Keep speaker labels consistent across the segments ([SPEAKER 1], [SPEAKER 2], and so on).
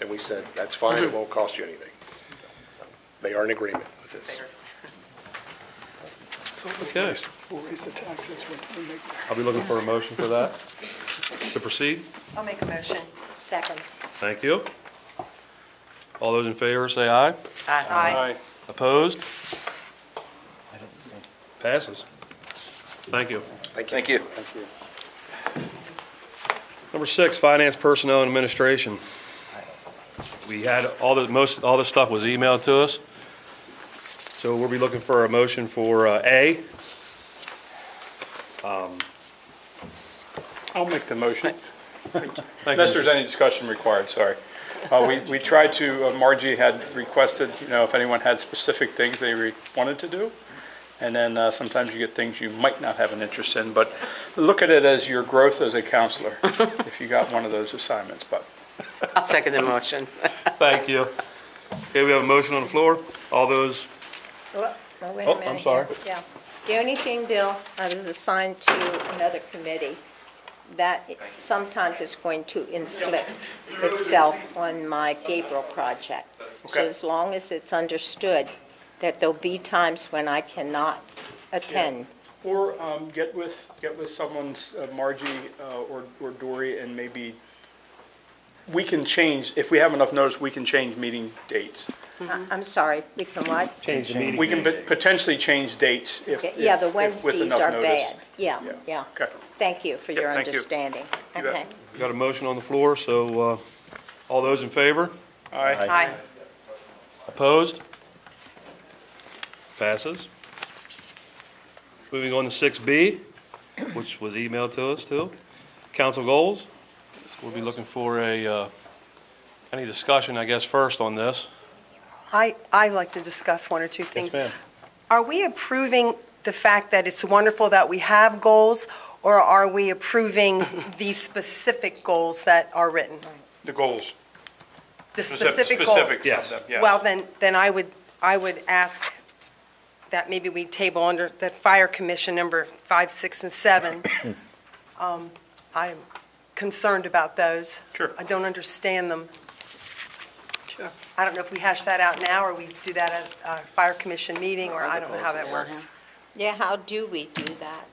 [SPEAKER 1] and we said, that's fine, it won't cost you anything. So, They are in agreement with this.
[SPEAKER 2] Okay.
[SPEAKER 3] We'll raise the taxes when we make that.
[SPEAKER 2] I'll be looking for a motion for that to proceed.
[SPEAKER 4] I'll make a motion. Second.
[SPEAKER 2] Thank you. All those in favor, say aye.
[SPEAKER 4] Aye.
[SPEAKER 2] Opposed? Passes. Thank you.
[SPEAKER 1] Thank you. Thank you.
[SPEAKER 2] Number six, finance, personnel, and administration. We had all the, most, all this stuff was emailed to us. So we'll be looking for a motion for uh, A.
[SPEAKER 5] I'll make the motion,
[SPEAKER 2] Thank
[SPEAKER 5] unless
[SPEAKER 2] you.
[SPEAKER 5] there's any discussion required, sorry. Uh, We we tried to, uh, Margie had requested, you know, if anyone had specific things they re- wanted to do, and then uh, sometimes you get things you might not have an interest in, but look at it as your growth as a counselor, if you got one of those assignments, but
[SPEAKER 6] I'll second the motion.
[SPEAKER 2] Thank you. Okay, we have a motion on the floor. All those,
[SPEAKER 7] Well, well, wait a
[SPEAKER 2] Oh, I'm
[SPEAKER 7] minute here.
[SPEAKER 2] sorry.
[SPEAKER 7] Yeah. The only thing, Bill, I was assigned to another committee that sometimes is going to inflict itself on my Gabriel project. So
[SPEAKER 5] Okay.
[SPEAKER 7] as long as it's understood that there'll be times when I cannot attend.
[SPEAKER 5] Or um, get with, get with someone's, uh, Margie uh, or or Dory, and maybe, we can change, if we have enough notice, we can change meeting dates.
[SPEAKER 7] I- I'm sorry, we can what?
[SPEAKER 5] We can pot- potentially change dates if.
[SPEAKER 7] Okay, Yeah, the
[SPEAKER 5] if- if with
[SPEAKER 7] Wednesdays
[SPEAKER 5] enough
[SPEAKER 7] are
[SPEAKER 5] notice.
[SPEAKER 7] bad. Yeah,
[SPEAKER 5] Yeah.
[SPEAKER 7] yeah.
[SPEAKER 5] Okay.
[SPEAKER 7] Thank you for
[SPEAKER 5] Yeah,
[SPEAKER 7] your
[SPEAKER 5] thank you.
[SPEAKER 7] understanding.
[SPEAKER 5] You bet.
[SPEAKER 7] Okay.
[SPEAKER 2] we got a motion on the floor, so uh, all those in favor?
[SPEAKER 5] All right.
[SPEAKER 4] Aye.
[SPEAKER 2] Opposed? Passes. Moving on to six B, which was emailed to us too. Council goals. We'll be looking for a, uh, any discussion, I guess, first on this.
[SPEAKER 8] I, I'd like to discuss one or two
[SPEAKER 2] Yes,
[SPEAKER 8] things.
[SPEAKER 2] ma'am.
[SPEAKER 8] Are we approving the fact that it's wonderful that we have goals, or are we approving the specific goals that are written?
[SPEAKER 5] The goals.
[SPEAKER 8] The
[SPEAKER 5] Specific-
[SPEAKER 8] specific goals?
[SPEAKER 5] specifics of
[SPEAKER 2] Yes.
[SPEAKER 5] them, yes.
[SPEAKER 8] Well, then, then I would, I would ask that maybe we table under that Fire Commission number five, six, and seven. Um, I'm concerned about those.
[SPEAKER 5] Sure.
[SPEAKER 8] I don't understand them. I don't know if we hash that out now, or we do that at a Fire Commission meeting, or I don't know how that works.
[SPEAKER 7] Yeah, how do we do that?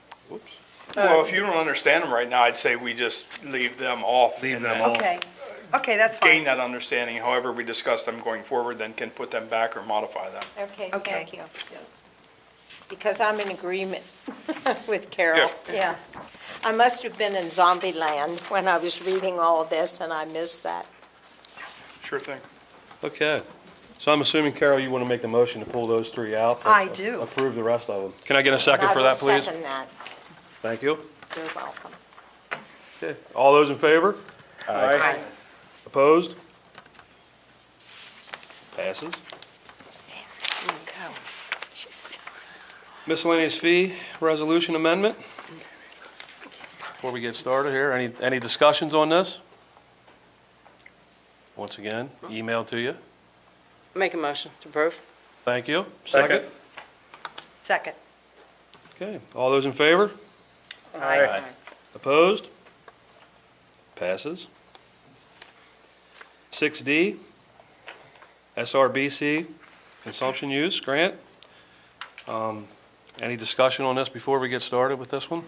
[SPEAKER 5] Well, if you don't understand them right now, I'd say we just leave them off.
[SPEAKER 2] Leave
[SPEAKER 5] and
[SPEAKER 2] them
[SPEAKER 5] then
[SPEAKER 2] off.
[SPEAKER 8] Okay, okay, that's
[SPEAKER 5] Gain
[SPEAKER 8] fine.
[SPEAKER 5] that understanding, however we discuss them going forward, then can put them back or modify them.
[SPEAKER 7] Okay,
[SPEAKER 8] Okay.
[SPEAKER 7] thank you. Because I'm in agreement with Carol, yeah. I must have been in zombie land when I was reading all this, and I missed that.
[SPEAKER 5] Sure thing.
[SPEAKER 2] Okay. So I'm assuming, Carol, you want to make the motion to pull those three out? but
[SPEAKER 8] I do.
[SPEAKER 2] Approve the rest of them. Can I get a second for that,
[SPEAKER 7] I will
[SPEAKER 2] please?
[SPEAKER 7] second that.
[SPEAKER 2] Thank you.
[SPEAKER 7] You're welcome.
[SPEAKER 2] Okay. All those in favor?
[SPEAKER 5] Aye.
[SPEAKER 2] Opposed? Passes.
[SPEAKER 7] Just-
[SPEAKER 2] Miscellaneous fee resolution amendment. Before we get started here, any, any discussions on this? Once again, email to you.
[SPEAKER 6] Make a motion to approve.
[SPEAKER 2] Thank you.
[SPEAKER 5] Second.
[SPEAKER 8] Second.
[SPEAKER 2] Okay, all those in favor?
[SPEAKER 5] Aye.
[SPEAKER 2] Opposed? Passes. 6D, SRBC consumption use grant. Um, Any discussion on this before we get started with this one?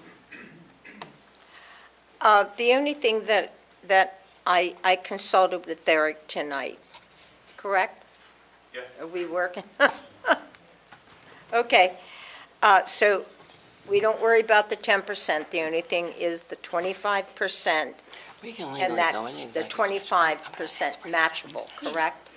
[SPEAKER 7] Uh, The only thing that, that I, I consulted with Eric tonight, correct?
[SPEAKER 5] Yeah.
[SPEAKER 7] Are we working? Okay, uh, so we don't worry about the 10%. The only thing is the 25%,
[SPEAKER 6] We can leave
[SPEAKER 7] and
[SPEAKER 6] it going.
[SPEAKER 7] that's the 25% matchable, correct?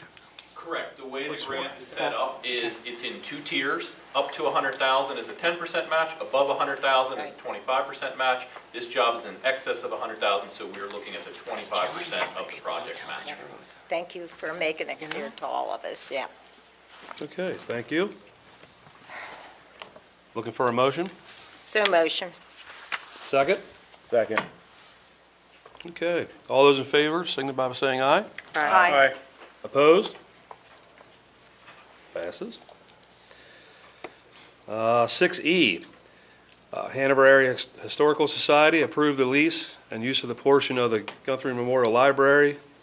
[SPEAKER 9] Correct. The way the grant is set up is it's in two tiers. Up to 100,000 is a 10% match, above 100,000 is a 25% match. This job is in excess of 100,000, so we're looking at the 25% of the project match.
[SPEAKER 7] Thank you for making it clear to all of us, yeah.
[SPEAKER 2] Okay, thank you. Looking for a motion?
[SPEAKER 7] So motion.
[SPEAKER 2] Second?
[SPEAKER 1] Second.
[SPEAKER 2] Okay. All those in favor, signify by saying aye.
[SPEAKER 6] Aye.
[SPEAKER 5] Aye.
[SPEAKER 2] Opposed? Passes. Uh, 6E, uh, Hanover Area Historical Society approved the lease and use of the portion of the Guthrie Memorial Library